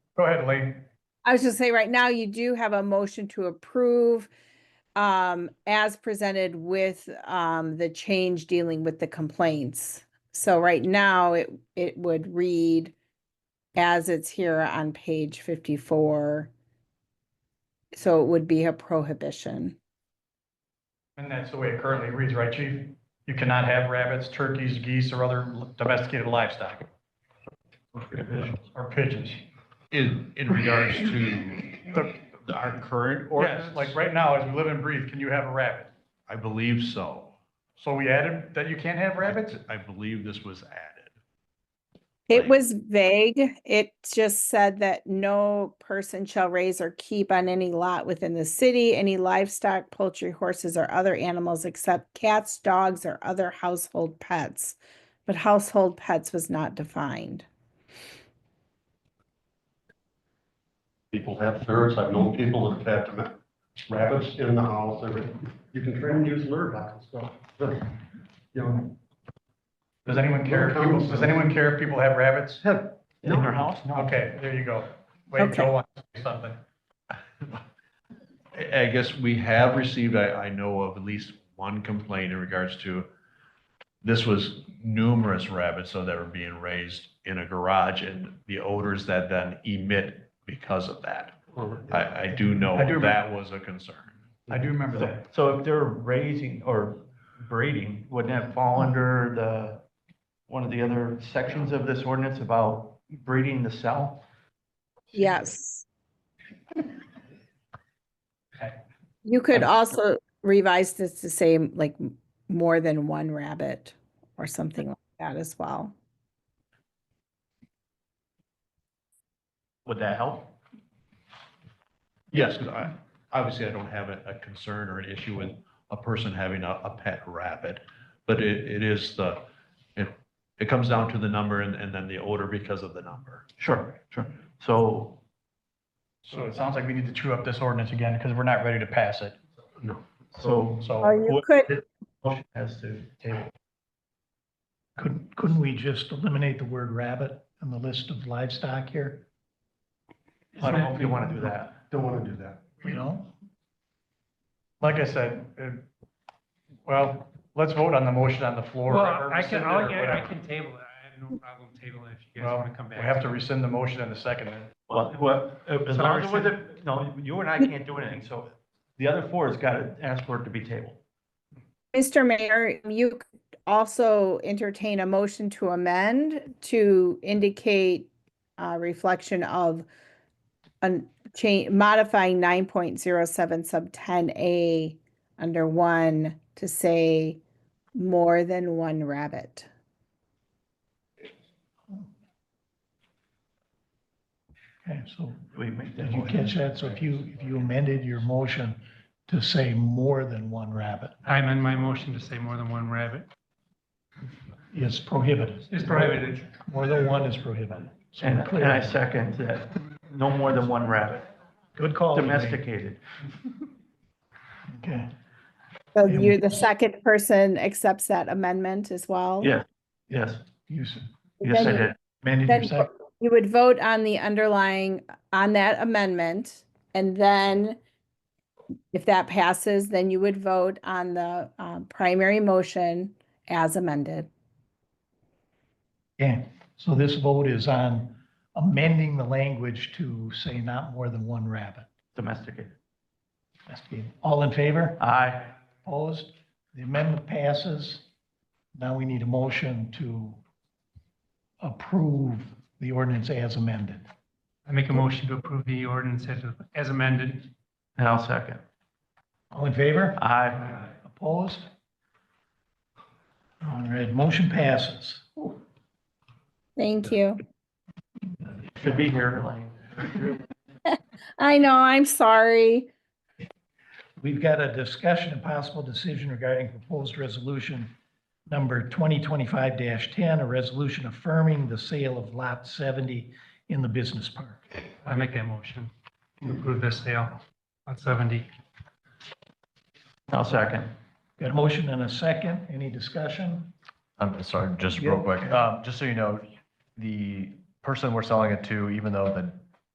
Go ahead, Lee. I was just saying, right now you do have a motion to approve um, as presented with um, the change dealing with the complaints. So right now it, it would read as it's here on page fifty-four. So it would be a prohibition. And that's the way it currently reads, right, chief? You cannot have rabbits, turkeys, geese, or other domesticated livestock. Or pigeons. In, in regards to the- our current ordinance? Yes, like right now, as we live and breathe, can you have a rabbit? I believe so. So we added that you can't have rabbits? I believe this was added. It Right. was vague. It just said that no person shall raise or keep on any lot within the city any livestock, poultry, horses, or other animals except cats, dogs, or other household pets. But household pets was not defined. People have ferrets, I've known people that have had them- rabbits in the house, everything. You can train them to use lure boxes, so. You know, Does anyone care if people, does anyone care if people have rabbits have- in their house? Okay, there you go. Wait, Okay. Joe wants to say something. I I guess we have received, I, I know of at least one complaint in regards to, this was numerous rabbits, so that were being raised in a garage and the odors that then emit because of that. or- I, I do know I do remember. that was a concern. I do remember that. So if they're raising or breeding, wouldn't that fall under the, one of the other sections of this ordinance about breeding the cell? Yes. Okay. You could also revise this to say like m- more than one rabbit or something like that as well. Would that help? Yes, because I, obviously I don't have a, a concern or an issue with a person having a, a pet rabbit. But it, it is the, it, it comes down to the number and, and then the odor because of the number. Sure, sure. So So it sounds like we need to chew up this ordinance again because we're not ready to pass it. So, Or So, you what- could, motion has to table. Couldn't, couldn't we just eliminate the word rabbit on the list of livestock here, I don't know if you want to do that. Don't want to do that. you know? like I said, it- well, let's vote on the motion on the floor. Well, or I can, rescind it I'll- or I whatever. can table it. I have no problem tabling it if you guys Well, want to come we back. have to rescind the motion in the second. then. Well, well, as long as it wasn't, no, you and I can't do anything, so the other four has got to ask for it to be tabled. Mr. Mayor, you could also entertain a motion to amend to indicate uh, reflection of an change, modifying nine point zero seven sub ten A under one to say more than one rabbit. Okay, so We make that did you motion. catch that? So if you, if you amended your motion to say more than one rabbit, I'm in my motion to say more than one rabbit. it's prohibited. It's prohibited. More than one is prohibited. So And we're and I clear. second that, no more than one rabbit, Good call. Elaine. domesticated. Okay, So Yeah, we you're the can- second person accepts that amendment as well? Yeah. Yes, you, s- yes, I Then you- did. amended Then- your second. You would vote on the underlying, on that amendment, and then if that passes, then you would vote on the um, primary motion as amended. Okay, so this vote is on amending the language to say not more than one rabbit. Domesticated. That's good. All in favor? Aye. Opposed? The amendment passes. Now we need a motion to approve the ordinance as amended. I make a motion to approve the ordinance as- as amended. And I'll second. All in favor? Aye. Opposed? All right, motion passes. Thank you. Should be here, Elaine. I know, I'm sorry. We've got a discussion and possible decision regarding proposed resolution number 2025-10, a resolution affirming the sale of Lot 70 in the business park. I make that motion to approve this sale on 70. I'll second. Got a motion and a second. Any discussion? I'm sorry, just real Yeah. quick, um, just so you know, the person we're selling it to, even though the